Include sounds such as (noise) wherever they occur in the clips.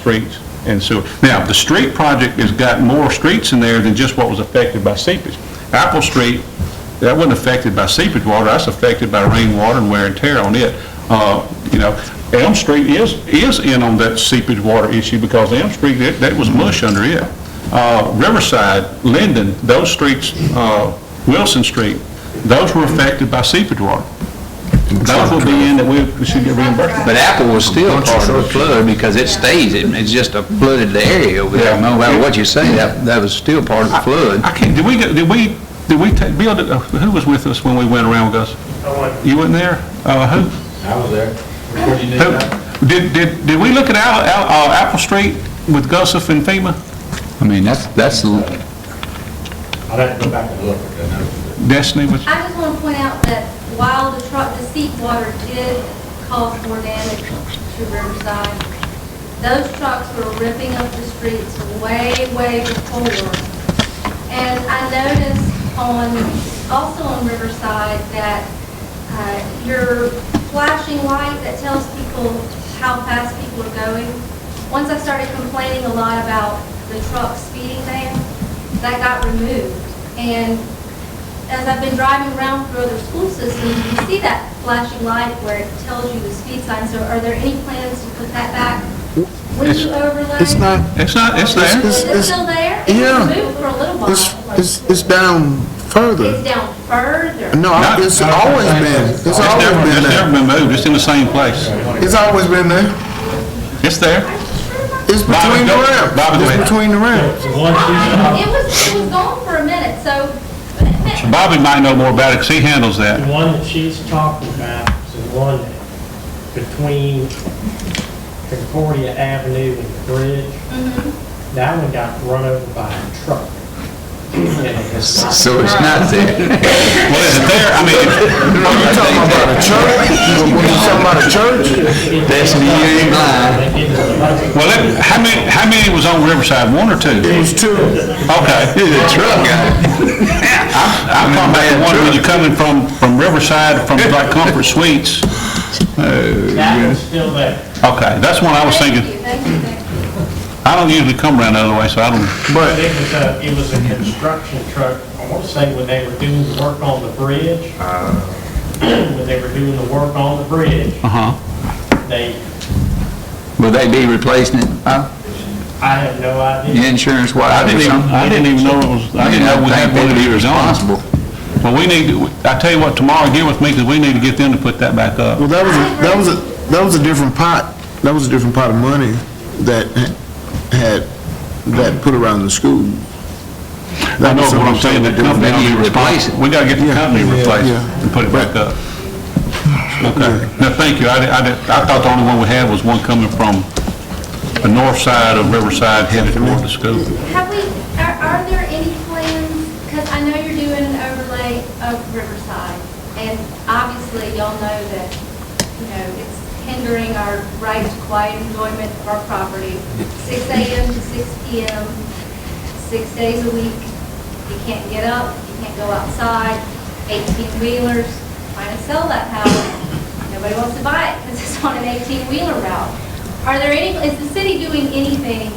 streets and sewer. Now, the street project has got more streets in there than just what was affected by seepage. Apple Street, that wasn't affected by seepage water, that's affected by rainwater and wear and tear on it. Uh, You know, Elm Street is, is in on that seepage water issue because Elm Street, that, that was mush under it. Uh, Riverside, Linden, those streets, uh, Wilson Street, those were affected by seepage water. Those will be in that we we should get reimbursed. But Apple was still part of the flood because it stays, it- it's just a flooded area over there. Yeah. No matter what you say, that, that was still part of the flood. I can't, did we, go- did we, did we, ta- Bill, did- uh, who was with us when we went around with us? You weren't there? Uh, who? I was there. What do you need now? Who, did, did, did we look at Al, Al, uh, Apple Street with Gussif and FEMA? I mean, that's, that's, the- I'd have to go back and look at that. number. Destiny was, I just want to point out that while the truck, the seep water did cause more damage to Riverside, those trucks were ripping up the streets way, way before. And I noticed on, also on Riverside, that uh, your flashing light that tells people how fast people are going, once I started complaining a lot about the truck speeding there, that got removed. And as I've been driving around through other school systems, you see that flashing light where it tells you the speed sign, so are there any plans to put that back? When It's- you overlay? It's not, it's not, it's there. Is It's- it still there? yeah. It moved for a little while. it's, it's, it's down It's further. down further. No, I- it's always been, it's It's always never, been it's never there. been moved, it's in the same place. It's always been there. It's there. Are you sure about It's Bobby, between the go- ramps. Bobby, go ahead. It's between the ramps. that? It was, it was gone for a minute, so. Bobby might know more about it, 'cause he handles The that. one that she's talking about is the one between Concordia Avenue and the bridge. That one got run over by a truck. And it was not- so it's not Well, there. is it there? I mean, You talking about a church? You talking about a church? It- That's me, you ain't blind. They did it. well, it- how many, how many was on Riverside, one or two? It was two. (laughs) Okay. The truck got it. I'm talking about the one when you're coming from, from Riverside, from like Comfort Suites. That was still there. Okay, that's one I was Thank thinking. you, thank you, thank you. I don't usually come around the other way, so I don't, But it was a, it was a construction truck, I want to say when they were doing the work on the bridge, Uh. when they were doing the work on the bridge, uh-huh. they, Will they be replacing it, huh? I have no idea. Insurance wise or something? I didn't even know it was, I didn't know we had one of these on. responsible. Well, we need, to- I tell you what, tomorrow, get with me, because we need to get them to put that back up. Well, that was, a that was, a that was a different pot, that was a different pot of money that had, that put around the school. I know what I'm saying, the company Maybe will be you replace it. responsible. We gotta get the company yeah, replaced yeah. and put it back up. Okay, now, thank you, I, di- I, di- I thought the only one we had was one coming from the north side of Riverside headed toward the school. Have we, are, are there any plans, because I know you're doing an overlay of Riverside, and obviously y'all know that, you know, it's hindering our right to quiet enjoyment of our property, six AM to six PM, six days a week, you can't get up, you can't go outside, eighteen wheelers, trying to sell that house, nobody wants to buy it because it's on an eighteen wheeler route. Are there any, is the city doing anything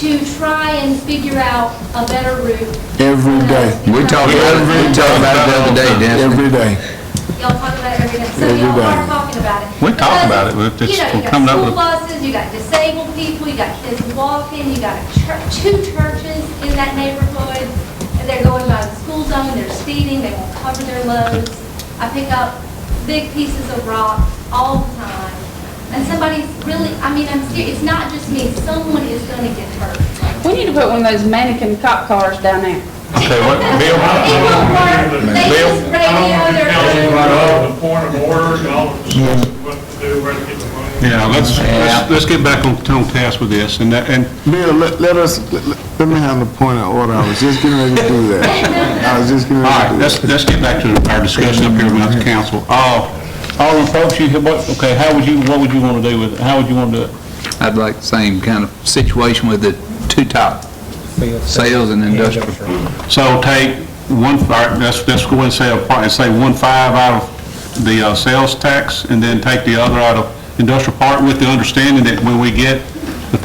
to try and figure out a better route. Every day. We talked about it, we talked about it the other day, Dennis. Every day. Y'all talk about it every day, so Every y'all day. are talking about it. We talk Because, about it, but it's- you know, we're coming up with- You got school buses, you got disabled people, you got kids walking, you got a church, two churches in that neighborhood, and they're going by the school zone, they're speeding, they won't cover their loads. I pick up big pieces of rock all the time, and somebody's really, I mean, I'm serious, it's not just me, someone is gonna get hurt. We need to put one of those mannequin cop cars down there. Okay, what, It Bill? won't work. They Bill? just radio their Y'all, the point of order, y'all are discussing what to do, where to get the money. Yeah, let's, Yeah. let's, let's get back on, on task with this, and that, and Bill, let, let us, let- let me have a point of order, I was just getting ready to do that. I was just getting All ready to right, do that. let's, let's get back to our discussion up here with the council. Uh, Alderman Probst, you, what, okay, how would you, what would you want to do with it? How would you want to do it? I'd like the same kind of situation with the two top, sales and industrial. So take one, all right, let's, let's go and say, a part- say one five out of the uh, sales tax, and then take the other out of industrial park with the understanding that when we get